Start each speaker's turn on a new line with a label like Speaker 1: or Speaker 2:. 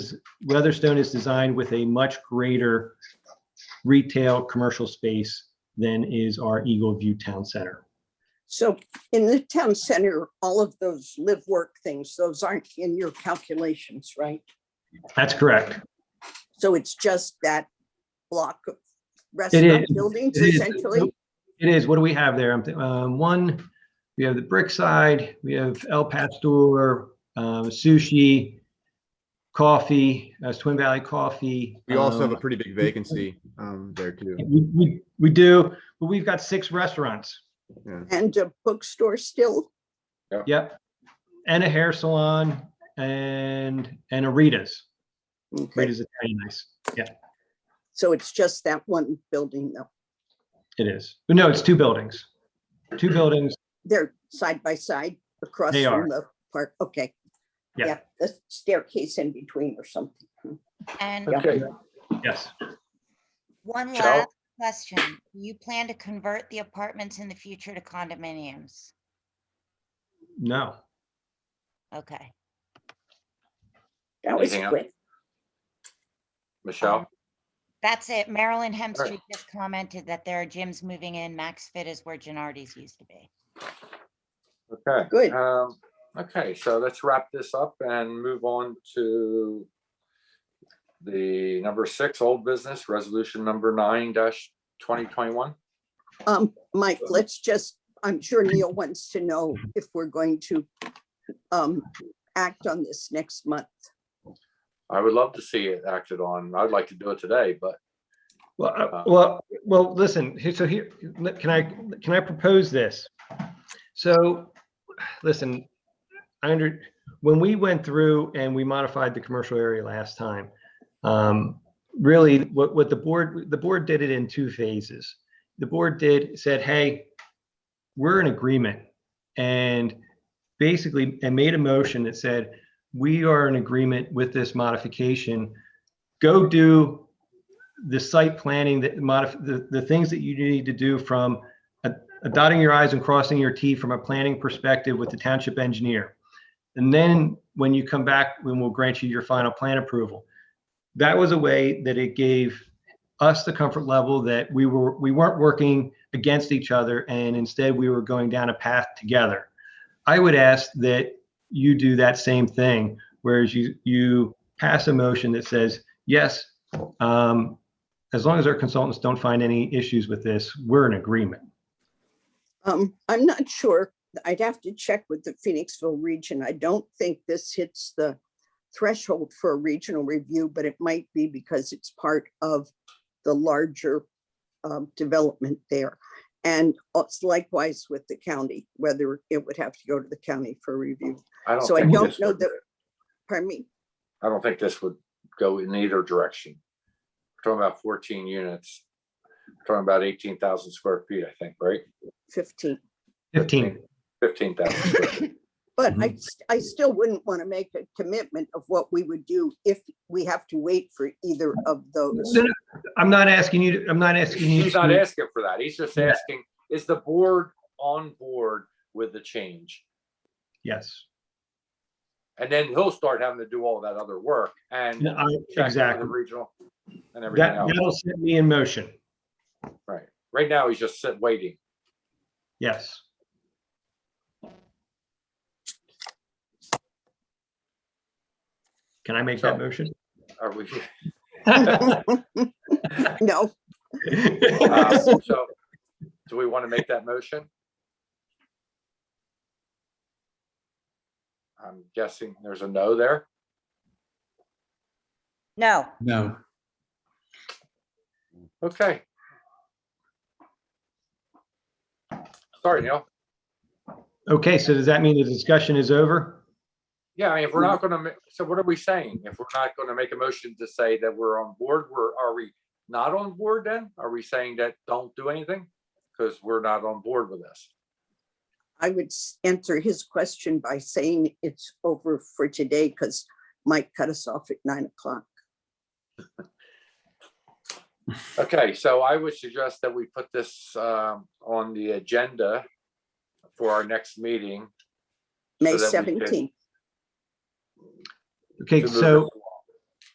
Speaker 1: Weatherstone is designed with a much greater retail commercial space than is our Eagle View Town Center.
Speaker 2: So in the town center, all of those live work things, those aren't in your calculations, right?
Speaker 1: That's correct.
Speaker 2: So it's just that block of restaurant
Speaker 1: is.
Speaker 2: buildings
Speaker 1: It is.
Speaker 2: essentially?
Speaker 1: It is. What do we have there? I'm thi- Um, one, we have the Brickside, we have El Pastor, um, sushi, coffee, that's Twin Valley Coffee.
Speaker 3: We also have
Speaker 1: um,
Speaker 3: a pretty big vacancy um, there too.
Speaker 1: We, we, we do, but we've got six restaurants.
Speaker 2: And a bookstore still?
Speaker 1: Yep. And a hair salon and, and a Rita's.
Speaker 2: Okay,
Speaker 1: Rita's Italian Nice. Yeah,
Speaker 2: so it's just that one building though.
Speaker 1: it is. But no, it's two buildings. Two buildings.
Speaker 2: They're side by side across
Speaker 1: They
Speaker 2: from the park. Okay.
Speaker 1: Yeah.
Speaker 2: The staircase in between or something.
Speaker 4: And
Speaker 2: Yeah.
Speaker 5: Okay,
Speaker 1: Yes.
Speaker 4: one
Speaker 5: Ciao.
Speaker 4: last question. Do You plan to convert the apartments in the future to condominiums?
Speaker 1: No.
Speaker 4: Okay.
Speaker 2: That was
Speaker 5: Anything else?
Speaker 2: quick.
Speaker 5: Michelle,
Speaker 4: That's it. Marilyn Hemstreet
Speaker 5: right.
Speaker 4: just commented that there are gyms moving in. Max Fit is where Gennardi's used to be.
Speaker 5: okay.
Speaker 2: Good.
Speaker 5: um, Okay, so let's wrap this up and move on to the number six, old business, resolution number nine dash twenty twenty-one.
Speaker 2: Um, Mike, let's just, I'm sure Neil wants to know if we're going to um, act on this next month.
Speaker 5: I would love to see it acted on. I'd like to do it today, but
Speaker 1: Well, uh,
Speaker 5: Uh,
Speaker 1: well, well, listen, here- so here, let- can I, can I propose this? So, listen, I under, when we went through and we modified the commercial area last time, um, really, what, what the board, the board did it in two phases. The board did, said, hey, we're in agreement. And basically, and made a motion that said, we are in agreement with this modification. Go do the site planning, the modif, the, the things that you need to do from uh, dotting your i's and crossing your t from a planning perspective with the township engineer. And then when you come back, when we'll grant you your final plan approval. That was a way that it gave us the comfort level that we were, we weren't working against each other and instead we were going down a path together. I would ask that you do that same thing, whereas you, you pass a motion that says, yes, um, as long as our consultants don't find any issues with this, we're in agreement.
Speaker 2: Um, I'm not sure. I'd have to check with the Phoenixville region. I don't think this hits the threshold for a regional review, but it might be because it's part of the larger um, development there. And it's likewise with the county, whether it would have to go to the county for review.
Speaker 5: I don't.
Speaker 2: So I
Speaker 5: think
Speaker 2: don't
Speaker 5: this
Speaker 2: know
Speaker 5: would-
Speaker 2: that, pardon me,
Speaker 5: I don't think this would go in either direction. We're Talking about fourteen units, We're talking about eighteen thousand square feet, I think, right?
Speaker 2: 15.
Speaker 1: Fifteen.
Speaker 5: Fifteen thousand.
Speaker 2: But I, s- I still wouldn't want to make a commitment of what we would do if we have to wait for either of those.
Speaker 1: No, no, I'm not asking you, to- I'm not asking you.
Speaker 5: He's not
Speaker 1: to-
Speaker 5: asking for that. He's just
Speaker 1: Yeah.
Speaker 5: asking, is the board on board with the change?
Speaker 1: Yes,
Speaker 5: And then he'll start having to do all that other work and.
Speaker 1: No, I-
Speaker 5: check with the
Speaker 1: exactly.
Speaker 5: Regional and everything
Speaker 1: That,
Speaker 5: else.
Speaker 1: that'll set me in motion.
Speaker 5: Right. Right now, he's just sitting, waiting.
Speaker 1: Yes. Can I make that
Speaker 5: So-
Speaker 1: motion?
Speaker 5: Are we?
Speaker 2: No,
Speaker 5: uh, So, do we want to make that motion? I'm guessing there's a no there.
Speaker 4: No,
Speaker 6: No,
Speaker 5: Okay. Sorry, Neil.
Speaker 1: Okay, so does that mean the discussion is over?
Speaker 5: Yeah, I mean, if we're not gonna, ma- so what are we saying? If we're not gonna make a motion to say that we're on board, we're, are we not on board then? Are we saying that don't do anything? Because we're not on board with this.
Speaker 2: I would s- answer his question by saying it's over for today because Mike cut us off at nine o'clock.
Speaker 5: Okay, so I would suggest that we put this um on the agenda for our next meeting.
Speaker 2: May
Speaker 5: that we can-
Speaker 2: seventeenth.
Speaker 1: Okay,
Speaker 5: to move
Speaker 1: so
Speaker 5: this along.